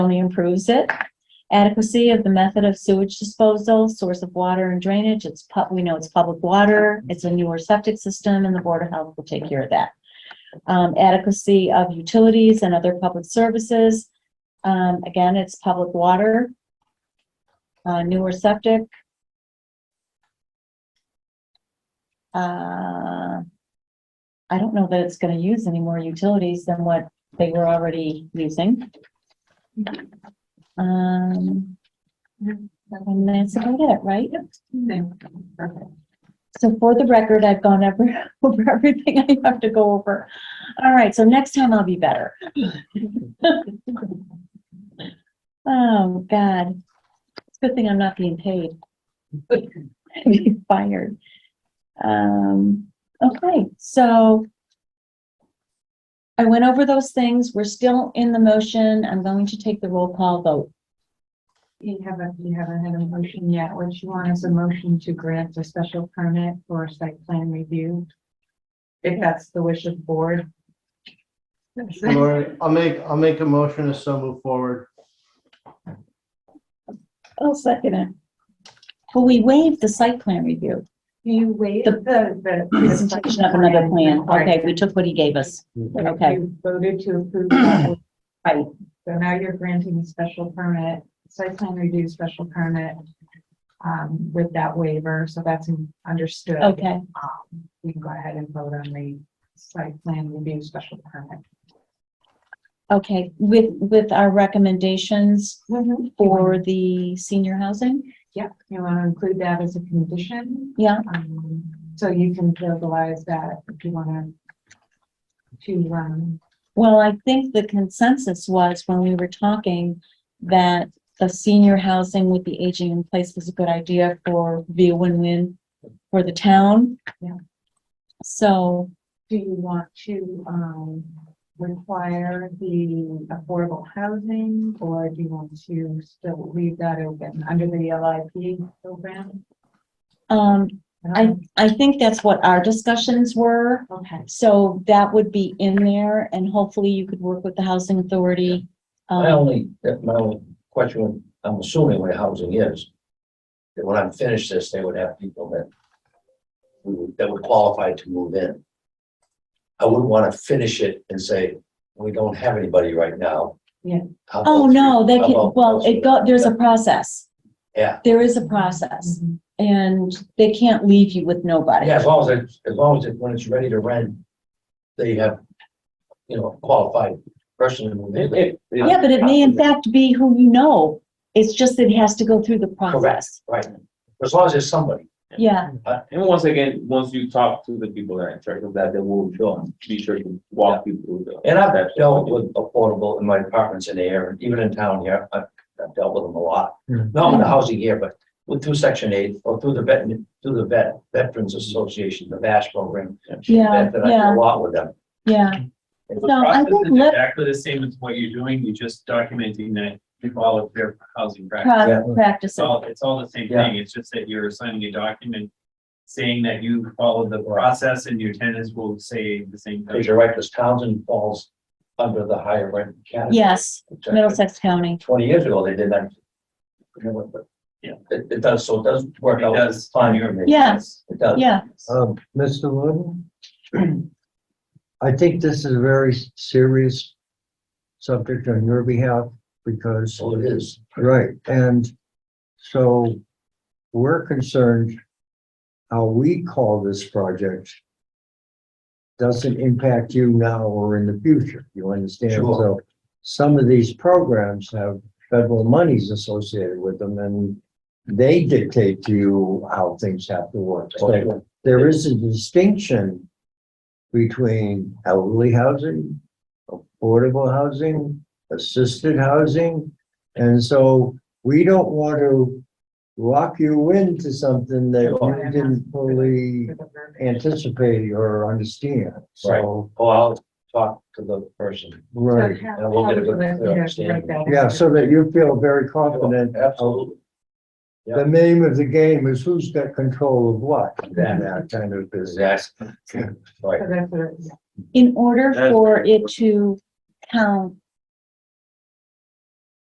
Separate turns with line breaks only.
only improves it. Adequacy of the method of sewage disposal, source of water and drainage, it's pub, we know it's public water, it's a newer septic system, and the Board of Health will take care of that. Um, adequacy of utilities and other public services, um, again, it's public water, uh, newer septic. Uh, I don't know that it's gonna use any more utilities than what they were already using. Um, and that's about it, right? So for the record, I've gone over, over everything I have to go over. All right, so next time I'll be better. Oh, God. It's a good thing I'm not being paid. I'd be fired. Um, okay, so I went over those things. We're still in the motion. I'm going to take the roll call vote.
You haven't, you haven't had a motion yet. What you want is a motion to grant a special permit for site plan review. If that's the wish of the board.
Lori, I'll make, I'll make a motion to so move forward.
I'll second it. Well, we waived the site plan review,
You wait,
The-
the, the.
presentation of another plan.
Right.
Okay, we took what he gave us.
And if
okay.
you Voted to approve. that,
Right.
So now you're granting a special permit, site plan review special permit um, with that waiver, so that's understood.
Okay,
Um, You can go ahead and vote on the site plan review special permit.
okay. With, with our recommendations for the senior housing?
Mm-hmm. Yeah, you want to include that as a condition,
Yeah,
um, so you can verbalize that if you want to, to, um,
well, I think the consensus was when we were talking that the senior housing with the aging in place was a good idea for, be a win-win for the town.
Yeah.
So,
do you want to, um, require the affordable housing, or do you want to still leave that open under the LIP program?
um,
I don't
I think that's what our discussions were.
know. Okay,
So that would be in there and hopefully you could work with the housing authority.
My
Um,
only, that my only question, I'm assuming where housing is, that when I'm finished this, they would have people that who- that would qualify to move in. I wouldn't want to finish it and say, we don't have anybody right now.
Yeah.
How about
oh, no, they
three? How
can,
about-
well, it go, there's a process.
Yeah,
There is a process
Mhm.
and they can't leave you with nobody.
yeah, as long as, it- as long as it- when it's ready to rent, they have, you know, qualified person to move in.
Yeah, but it may in fact be who you know. It's just that it has to go through the process.
Right, as long as there's somebody.
Yeah,
And once again, once you talk to the people that are in charge of that, they will show, be sure to walk you through the.
And I've dealt with affordable in my apartments in the area, even in town here, I've, I've dealt with them a lot.
Mm.
Not in the housing here, but with through section eight, or through the vet, through the vet, Veterans Association, the VASH program.
Yeah,
That that I do a lot with them.
yeah.
The
No, I
process
think
is
let-
exactly the same as what you're doing, you're just documenting that you follow fair housing practice.
Pro- Practice
It's
it.
all, it's all the same
Yeah.
thing, it's just that you're signing a document saying that you followed the process and your tenants will say the same
Because
thing.
you're right, because Townsend falls under the higher rent category.
Yes,
which I-
Middlesex County.
Twenty years ago, they did that. You know, but-
Yeah.
It, it does, so it does work
It
out.
does.
Fine, you're.
Yes.
It does.
Yeah,
Um, Mr. Wooden? I think this is a very serious subject on your behalf because,
So Oh, it is.
right, and so we're concerned how we call this project doesn't impact you now or in the future, you understand?
Sure.
So some of these programs have federal monies associated with them and they dictate to you how things have to work. So there is a distinction between elderly housing, affordable housing, assisted housing. And so we don't want to lock you into something that you didn't fully
for the verbiage.
anticipate or understand. So,
Oh, I'll talk to the person.
right.
So how-
And we'll get a
how would you
good
like me to
understanding.
write that?
Yeah, so that you feel very confident.
Absolutely.
The name of the game is who's got control of what, and that kind of business.
Yes. Right.
So that's what it- yeah.
in order
That's-
for it to count